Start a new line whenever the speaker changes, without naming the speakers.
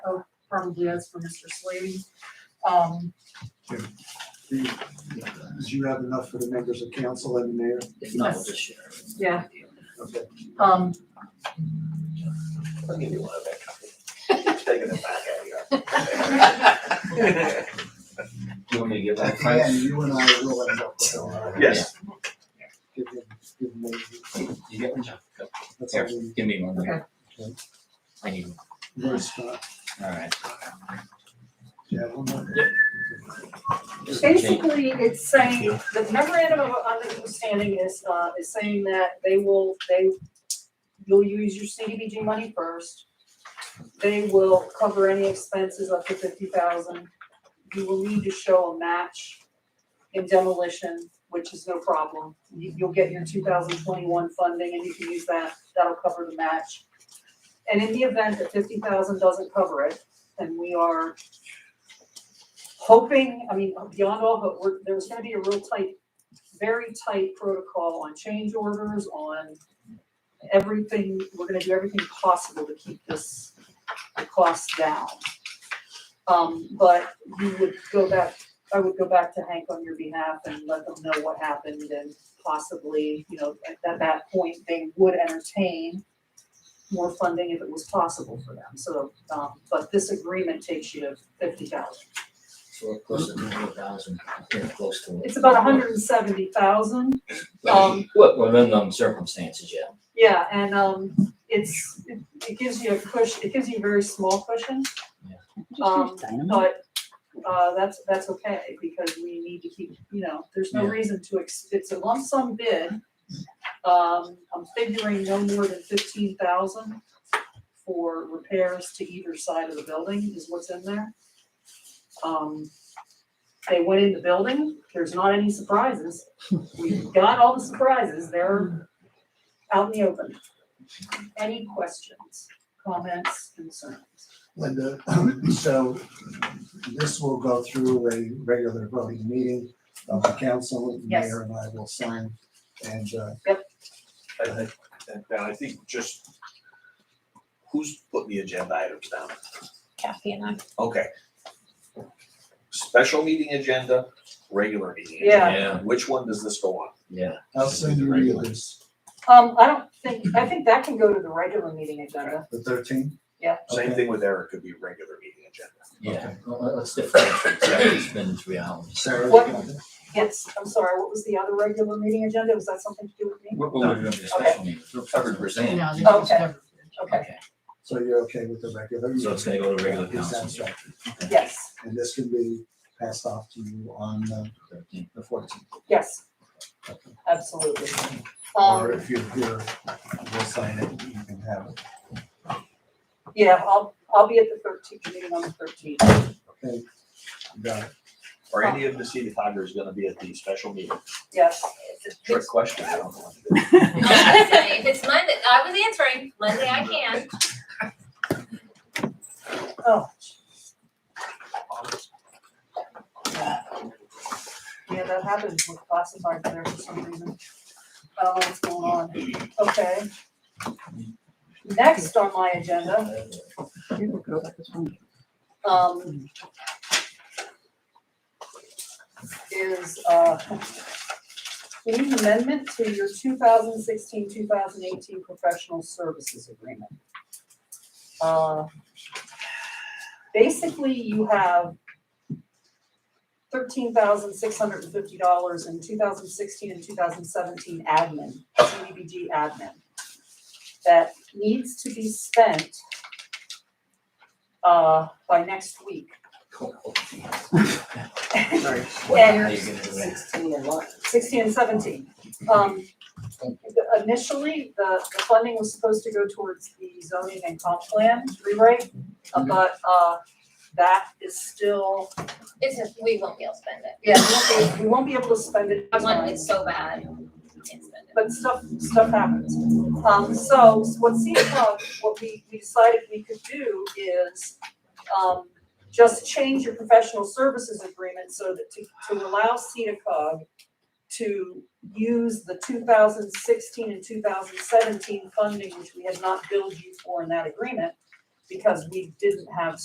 Oh, probably that's for Mr. Slavy. Um,
Do you have enough for the members of council and the mayor?
If not, we'll just share. it.
Yeah.
Okay.
um,
I'll give you one of that. Taking it back out here.
You want me to give that
And
price?
you and I will end up with it.
Yes.
Give him, give him, a-
You get one?
that's all
Here,
we,
give me one.
Okay.
I need one.
we're stuck.
All right.
Yeah, one more.
basically, it's saying, the memorandum of understanding is, uh, is saying that they will, they, you'll use your CDBG money first. They will cover any expenses up to fifty thousand. You will need to show a match in demolition, which is no problem. You, you'll get your two thousand twenty-one funding and you can use that, that'll cover the match. And in the event that fifty thousand doesn't cover it, and we are hoping, I mean, beyond all hope, we're, there's gonna be a real tight, very tight protocol on change orders, on everything, we're gonna do everything possible to keep this, the cost down. Um, but you would go back, I would go back to Hank on your behalf and let them know what happened and possibly, you know, at, at that point, they would entertain more funding if it was possible for them, so, um, but this agreement takes you to fifty thousand.
So we're close to hundred thousand, yeah, close to.
It's about hundred and seventy thousand, um,
What, well, in them circumstances, yeah.
yeah, and, um, it's, it, it gives you a cushion, it gives you a very small cushion, um, but, uh, that's, that's okay, because we need to keep, you know, there's no
Yeah.
reason to, ex- it's a lump sum bid. Um, I'm figuring no more than fifteen thousand for repairs to either side of the building is what's in there. Um, they went in the building, there's not any surprises. We've got all the surprises, they're out in the open. Any questions, comments, concerns?
Linda, so this will go through a regular voting meeting of the council, the
Yes.
mayor and I will sign. And, uh,
I- I- and I think just, who's putting the agenda items down?
Kathy and I.
Okay. Special meeting agenda, regular meeting.
Yeah.
agenda. Which one does this go on?
Yeah.
I'll send you the others,
Um, I don't think, I think that can go to the regular meeting agenda.
the thirteen?
Yeah.
Same thing with Eric, could be regular meeting agenda.
Yeah, well, let's differentiate, it's been three hours.
Sarah, you
What-
got it?
Yes, I'm sorry, what was the other regular meeting agenda? Was that something to do with me?
What, what we're doing for special meetings, we're covered, we're saying.
Okay. Okay,
Okay,
so you're okay with the regular?
so it's gonna go to regular
Yes,
council.
that's right.
yes,
And this can be passed off to you on uh,
Thirteen.
the fourteenth.
yes, absolutely.
Or
Um,
if you're here, we'll sign it, you can have it.
yeah, I'll, I'll be at the thirteenth, meeting on the thirteenth.
Okay, got it.
Are any of the city founders gonna be at the special meeting?
Yes,
Trick question, I don't know. what to do.
Listen, if it's Monday, I was answering, Monday I can.
oh. Yeah, that happens with classified there for some reason. I don't know what's going on. Okay. Next on my agenda um, is, uh, we need an amendment to your 2016-2018 professional services agreement. Uh, basically, you have thirteen thousand six hundred and fifty dollars in two thousand sixteen and two thousand seventeen admin, CDBG admin, that needs to be spent uh, by next week.
Sorry.
And-
How you gonna do that?
Sixteen and seventeen. Um, the- initially, the, the funding was supposed to go towards the zoning and comp plan rewrite, uh, but, uh, that is still,
It's just, we won't be able to spend it.
yeah, we won't be, we won't be able to spend it.
I want it so bad. we Can't spend it.
but stuff, stuff happens. Um, so what CECA, what we, we decided we could do is, um, just change your professional services agreement so that to, to allow CEDACOG to use the two thousand sixteen and two thousand seventeen funding, which we had not billed you for in that agreement, because we didn't have